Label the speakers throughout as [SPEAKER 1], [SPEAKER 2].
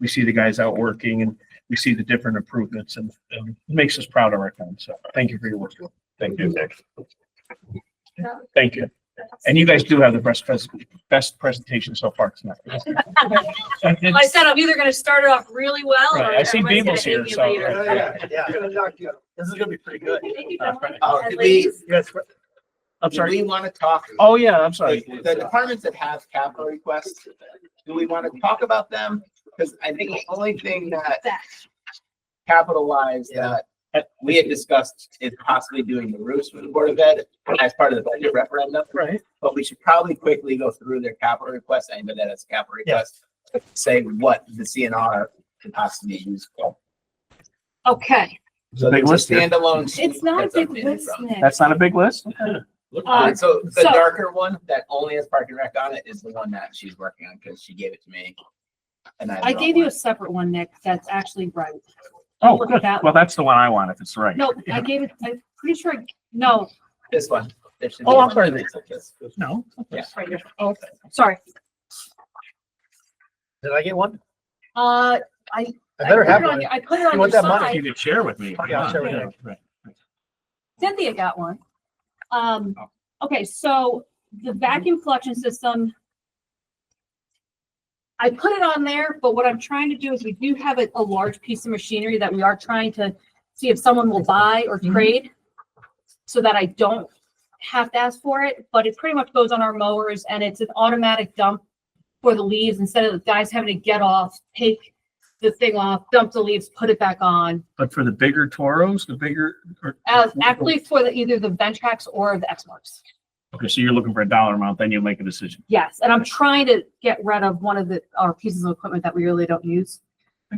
[SPEAKER 1] we see the guys out working and we see the different improvements and, and it makes us proud of our town. So thank you for your work.
[SPEAKER 2] Thank you, Nick.
[SPEAKER 1] Thank you. And you guys do have the best, pres- best presentation so far tonight.
[SPEAKER 3] Well, I said I'm either gonna start it off really well or
[SPEAKER 1] Right, I see
[SPEAKER 3] everyone's
[SPEAKER 1] Beamel's
[SPEAKER 3] gonna hate
[SPEAKER 1] here,
[SPEAKER 3] me
[SPEAKER 1] so-
[SPEAKER 3] later.
[SPEAKER 4] Oh, Yeah, yeah, yeah. This is gonna be pretty good.
[SPEAKER 3] Uh,
[SPEAKER 4] Uh, do we,
[SPEAKER 1] Yes, I'm
[SPEAKER 4] do
[SPEAKER 1] sorry.
[SPEAKER 4] we wanna talk?
[SPEAKER 1] Oh, yeah, I'm sorry.
[SPEAKER 4] like, The departments that have capital requests, do we wanna talk about them? Cause I think the only thing that capitalized that we had discussed is possibly doing the roofs with the Board of Ed as part of the budget referendum.
[SPEAKER 1] Right.
[SPEAKER 4] But we should probably quickly go through their capital requests, anybody that has capital requests, say what the CNR can possibly use for.
[SPEAKER 3] Okay,
[SPEAKER 4] So
[SPEAKER 1] Big
[SPEAKER 4] there's a
[SPEAKER 1] list here.
[SPEAKER 4] standalone. sheet
[SPEAKER 5] It's not a
[SPEAKER 4] that's
[SPEAKER 5] big
[SPEAKER 4] updated
[SPEAKER 5] list,
[SPEAKER 4] from-
[SPEAKER 5] Nick.
[SPEAKER 1] That's not a big list?
[SPEAKER 4] Uh, so the
[SPEAKER 3] so-
[SPEAKER 4] darker one that only has park and rec on it is the one that she's working on because she gave it to me. And I.
[SPEAKER 5] I gave you a separate one, Nick, that's actually right.
[SPEAKER 1] Oh,
[SPEAKER 5] Look at
[SPEAKER 1] good.
[SPEAKER 5] that
[SPEAKER 1] Well, that's the one I want if it's right.
[SPEAKER 5] No, I gave it, I'm pretty sure, I- no,
[SPEAKER 4] This one. There should be
[SPEAKER 1] Oh, I'm
[SPEAKER 4] one
[SPEAKER 1] sorry.
[SPEAKER 4] that looks like this.
[SPEAKER 1] No.
[SPEAKER 4] Yeah.
[SPEAKER 5] right here. Oh, sorry.
[SPEAKER 6] Did I get one?
[SPEAKER 5] Uh,
[SPEAKER 6] I
[SPEAKER 5] I
[SPEAKER 6] better
[SPEAKER 5] put
[SPEAKER 6] have
[SPEAKER 5] it
[SPEAKER 6] one.
[SPEAKER 5] on, I put it on
[SPEAKER 6] You
[SPEAKER 5] your
[SPEAKER 6] want that money?
[SPEAKER 5] side.
[SPEAKER 1] You could share with me.
[SPEAKER 6] Yeah, I'll share with you.
[SPEAKER 1] Right.
[SPEAKER 5] Cynthia got one. Um, okay, so the vacuum collection system. I put it on there, but what I'm trying to do is we do have a, a large piece of machinery that we are trying to see if someone will buy or trade. So that I don't have to ask for it, but it pretty much goes on our mowers and it's an automatic dump for the leaves instead of the guys having to get off, take the thing off, dump the leaves, put it back on.
[SPEAKER 1] But for the bigger Toros, the bigger. or-
[SPEAKER 5] Uh, actually for the, either the Ventrax or the X marks.
[SPEAKER 1] Okay, so you're looking for a dollar amount, then you'll make a decision.
[SPEAKER 5] Yes, and I'm trying to get rid of one of the, our pieces of equipment that we really don't use.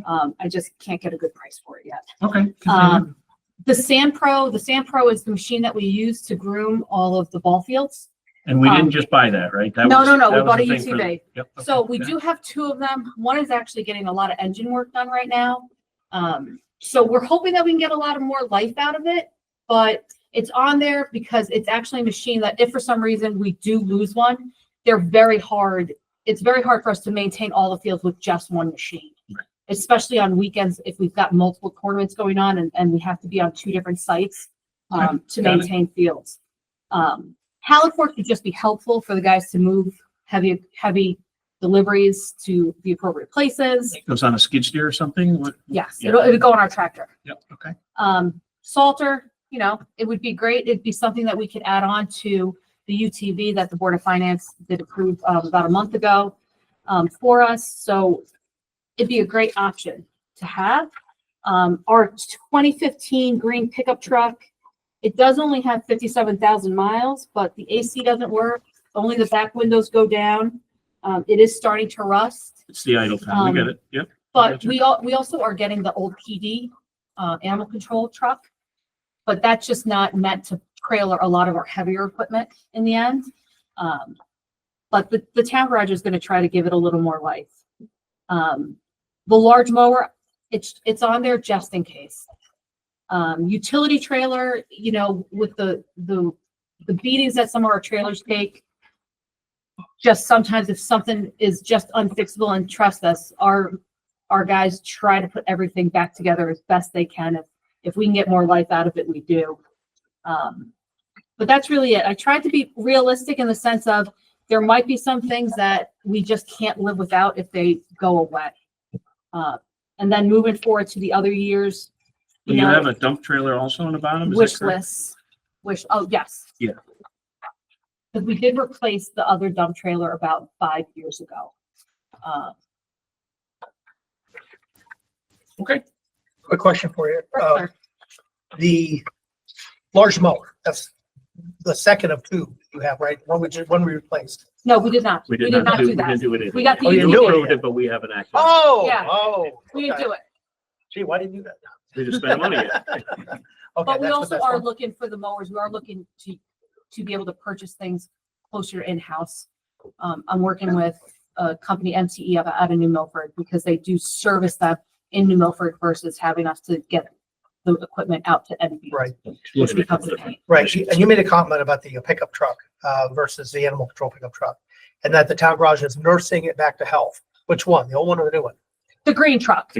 [SPEAKER 5] Um, I just can't get a good price for it yet.
[SPEAKER 1] Okay.
[SPEAKER 5] Um, the Sand Pro, the Sand Pro is the machine that we use to groom all of the ball fields.
[SPEAKER 1] And we didn't
[SPEAKER 5] um,
[SPEAKER 1] just buy that, right? That
[SPEAKER 5] No,
[SPEAKER 1] was-
[SPEAKER 5] no,
[SPEAKER 1] that
[SPEAKER 5] no, we
[SPEAKER 1] was
[SPEAKER 5] bought a
[SPEAKER 1] the thing for the-
[SPEAKER 5] UTV.
[SPEAKER 1] Yep, okay,
[SPEAKER 5] So we
[SPEAKER 1] yeah.
[SPEAKER 5] do have two of them. One is actually getting a lot of engine work done right now. Um, so we're hoping that we can get a lot of more life out of it, but it's on there because it's actually a machine that if for some reason we do lose one, they're very hard. It's very hard for us to maintain all the fields with just one machine. Especially on weekends, if we've got multiple tournaments going on and, and we have to be on two different sites, um, to
[SPEAKER 1] got it.
[SPEAKER 5] maintain fields. Um, Halifax would just be helpful for the guys to move heavy, heavy deliveries to the appropriate places.
[SPEAKER 1] Goes on a skid steer or something? What?
[SPEAKER 5] Yes,
[SPEAKER 1] Yeah.
[SPEAKER 5] it'll, it'll go on our tractor.
[SPEAKER 1] Yep, okay.
[SPEAKER 5] Um, Salter, you know, it would be great. It'd be something that we could add on to the UTV that the Board of Finance did approve um, about a month ago um, for us. So it'd be a great option to have. Um, our twenty fifteen green pickup truck, it does only have fifty-seven thousand miles, but the AC doesn't work. Only the back windows go down. Um, it is starting to rust.
[SPEAKER 1] It's the idle time. We
[SPEAKER 5] Um,
[SPEAKER 1] get it. Yep.
[SPEAKER 5] But
[SPEAKER 1] Gotcha.
[SPEAKER 5] we all, we also are getting the old PD, uh, animal control truck. But that's just not meant to trailer a lot of our heavier equipment in the end. Um, but the, the town garage is gonna try to give it a little more life. Um, the large mower, it's, it's on there just in case. Um, utility trailer, you know, with the, the, the beatings that some of our trailers take, just sometimes if something is just unfixable and trust us, our our guys try to put everything back together as best they can. If, if we can get more life out of it, we do. Um, but that's really it. I tried to be realistic in the sense of there might be some things that we just can't live without if they go away. Uh, and then moving forward to the other years,
[SPEAKER 1] Do
[SPEAKER 5] you
[SPEAKER 1] you have
[SPEAKER 5] know,
[SPEAKER 1] a dump trailer also on the bottom? Is that
[SPEAKER 5] wish
[SPEAKER 1] correct?
[SPEAKER 5] lists, wish, oh, yes.
[SPEAKER 1] Yeah.
[SPEAKER 5] Because we did replace the other dump trailer about five years ago. Uh,
[SPEAKER 6] Quick question for you. Uh, the large mower, that's the second of two you have, right? One we just, one we replaced.
[SPEAKER 5] no, we did not. We did not
[SPEAKER 1] we
[SPEAKER 5] do
[SPEAKER 1] didn't
[SPEAKER 5] that.
[SPEAKER 1] do it.
[SPEAKER 5] We got the
[SPEAKER 6] Oh, you
[SPEAKER 5] UTV.
[SPEAKER 6] knew it.
[SPEAKER 1] approved it, but we haven't acted.
[SPEAKER 6] Oh,
[SPEAKER 5] Yeah.
[SPEAKER 6] oh.
[SPEAKER 5] We didn't do it,
[SPEAKER 6] Gee, why didn't you do that?
[SPEAKER 1] We just spent money yet.
[SPEAKER 6] Okay,
[SPEAKER 5] but we
[SPEAKER 6] that's what
[SPEAKER 5] also
[SPEAKER 6] that's
[SPEAKER 5] are
[SPEAKER 6] for.
[SPEAKER 5] looking for the mowers. We are looking to, to be able to purchase things closer in-house. Um, I'm working with a company MTE out- out of New Milford because they do service them in New Milford versus having us to get the equipment out to NB.
[SPEAKER 6] Right,
[SPEAKER 5] Which becomes a pain.
[SPEAKER 6] right. You- And you made a comment about the pickup truck, uh, versus the animal control pickup truck. And that the town garage is nursing it back to health. Which one? The old one or the new one?
[SPEAKER 5] The green truck.